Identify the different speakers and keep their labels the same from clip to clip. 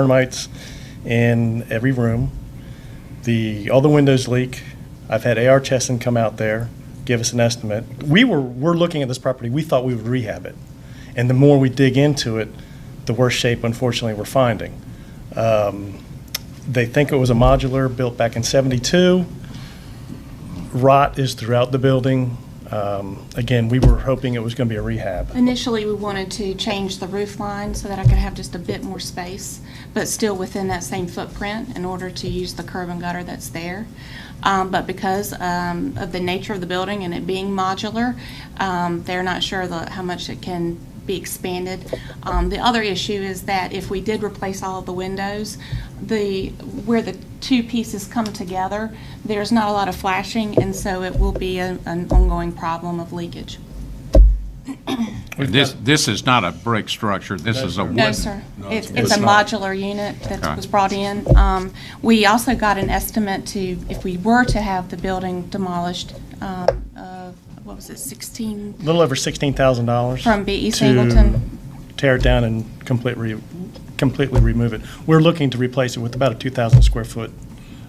Speaker 1: termites in every room. The, all the windows leak. I've had AR Chesson come out there, give us an estimate. We were, we're looking at this property, we thought we would rehab it. And the more we dig into it, the worse shape unfortunately we're finding. Um, They think it was a modular built back in 72. Rot is throughout the building. Um, Again, we were hoping it was going to be a rehab.
Speaker 2: Initially, we wanted to change the roof line so that I could have just a bit more space, but still within that same footprint in order to use the curb and gutter that's there. Um, But because um, of the nature of the building and it being modular, um, they're not sure the- how much it can be expanded. Um, The other issue is that if we did replace all of the windows, the, where the two pieces come together, there's not a lot of flashing, and so it will be an an ongoing problem of leakage.
Speaker 1: We've
Speaker 3: This,
Speaker 1: got-
Speaker 3: this is not a brick structure, this is a wooden.
Speaker 2: No, sir. It's it's a
Speaker 1: not.
Speaker 2: modular unit that
Speaker 3: Okay.
Speaker 2: was brought in. Um, We also got an estimate to, if we were to have the building demolished, um, of, what was it, 16,
Speaker 1: little over sixteen thousand dollars.
Speaker 2: From B.E. Singleton.
Speaker 1: Tear it down and completely, completely remove it. We're looking to replace it with about a two thousand square foot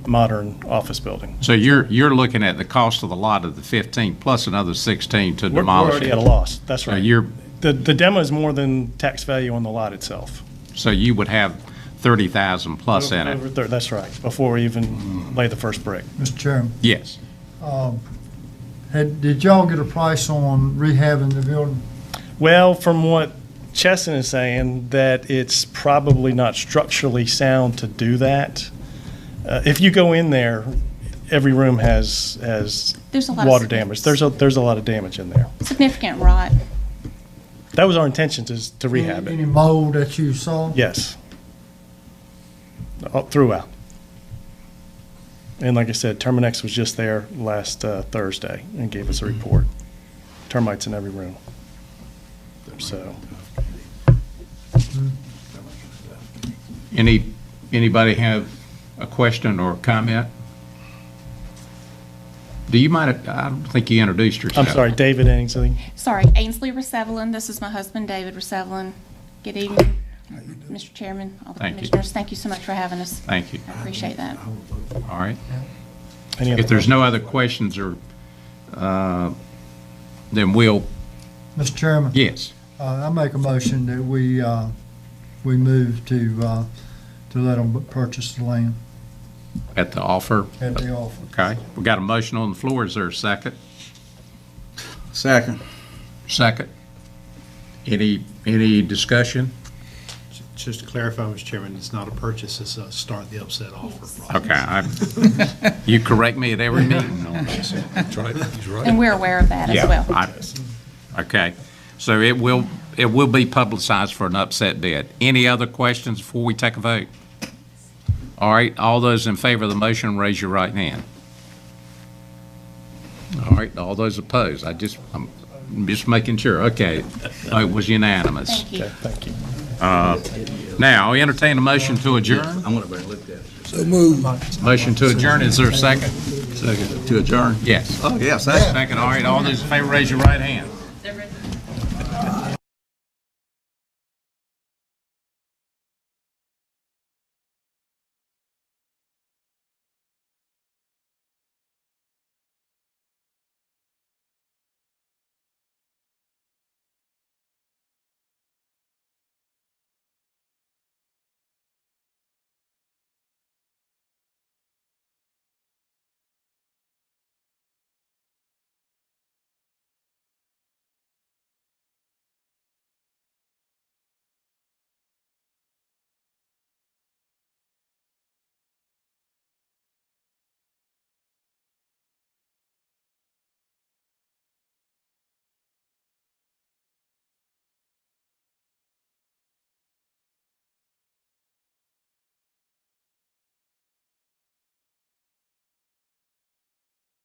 Speaker 1: modern office building.
Speaker 3: So you're, you're looking at the cost of the lot of the 15 plus another 16 to
Speaker 1: We're we're
Speaker 3: demolish
Speaker 1: already at a
Speaker 3: it.
Speaker 1: loss, that's
Speaker 3: So
Speaker 1: right.
Speaker 3: you're,
Speaker 1: The, the demo is more than tax value on the lot itself.
Speaker 3: so you would have 30,000 plus in
Speaker 1: Over
Speaker 3: it.
Speaker 1: thir- That's right, before we even lay the first brick.
Speaker 4: Mr. Chairman,
Speaker 3: Yes.
Speaker 4: had, did y'all get a price on rehabbing the building?
Speaker 1: Well, from what Chesson is saying, that it's probably not structurally sound to do that. Uh, if you go in there, every room has, has
Speaker 2: There's a lot of
Speaker 1: water
Speaker 2: space.
Speaker 1: damage. There's a, there's a lot of damage in there.
Speaker 2: significant rot.
Speaker 1: That was our intention is to
Speaker 2: Mm-hmm.
Speaker 1: rehab
Speaker 4: Any
Speaker 1: it.
Speaker 4: mold that you saw?
Speaker 1: Yes. All Throughout. And like I said, Terminex was just there last uh, Thursday and gave us a
Speaker 2: Mm-hmm.
Speaker 1: report. Termites in every room. So,
Speaker 3: Any, anybody have a question or comment? Do you mind, if- I don't think you introduced yourself.
Speaker 1: I'm sorry, David Ainsley.
Speaker 2: Sorry, Ainsley Resevelin, this is my husband, David Resevelin. Good evening, Mr. Chairman, all the
Speaker 3: Thank you.
Speaker 2: commissioners. Thank you so much for having us.
Speaker 3: Thank you.
Speaker 2: I appreciate that.
Speaker 3: All right.
Speaker 1: Any other
Speaker 3: If there's no other questions or, uh, then we'll,
Speaker 4: Mr. Chairman?
Speaker 3: yes.
Speaker 4: Uh, I make a motion that we, uh, we move to, uh, to let them purchase the land
Speaker 3: At the offer?
Speaker 4: at the offer.
Speaker 3: Okay, we got a motion on the floor, is there a second?
Speaker 5: Second.
Speaker 3: Second. Any, any discussion?
Speaker 6: Just to clarify, Mr. Chairman, it's not a purchase, it's a start the upset offer.
Speaker 3: Okay, I, you correct me at every meeting on this.
Speaker 2: And we're aware of that as well.
Speaker 3: I- Okay, so it will, it will be publicized for an upset bid. Any other questions before we take a vote? All right, all those in favor of the motion, raise your right hand. All right, all those opposed, I just, I'm just making sure, okay. It was unanimous.
Speaker 2: Thank you.
Speaker 1: Thank you.
Speaker 3: Now, I entertain a motion to adjourn.
Speaker 5: I'm gonna bring look at it.
Speaker 3: Motion to adjourn, is there a second?
Speaker 5: Second. To adjourn?
Speaker 3: Yes.
Speaker 5: Oh, yeah, second.
Speaker 3: Second, all right, all those in favor, raise your right hand.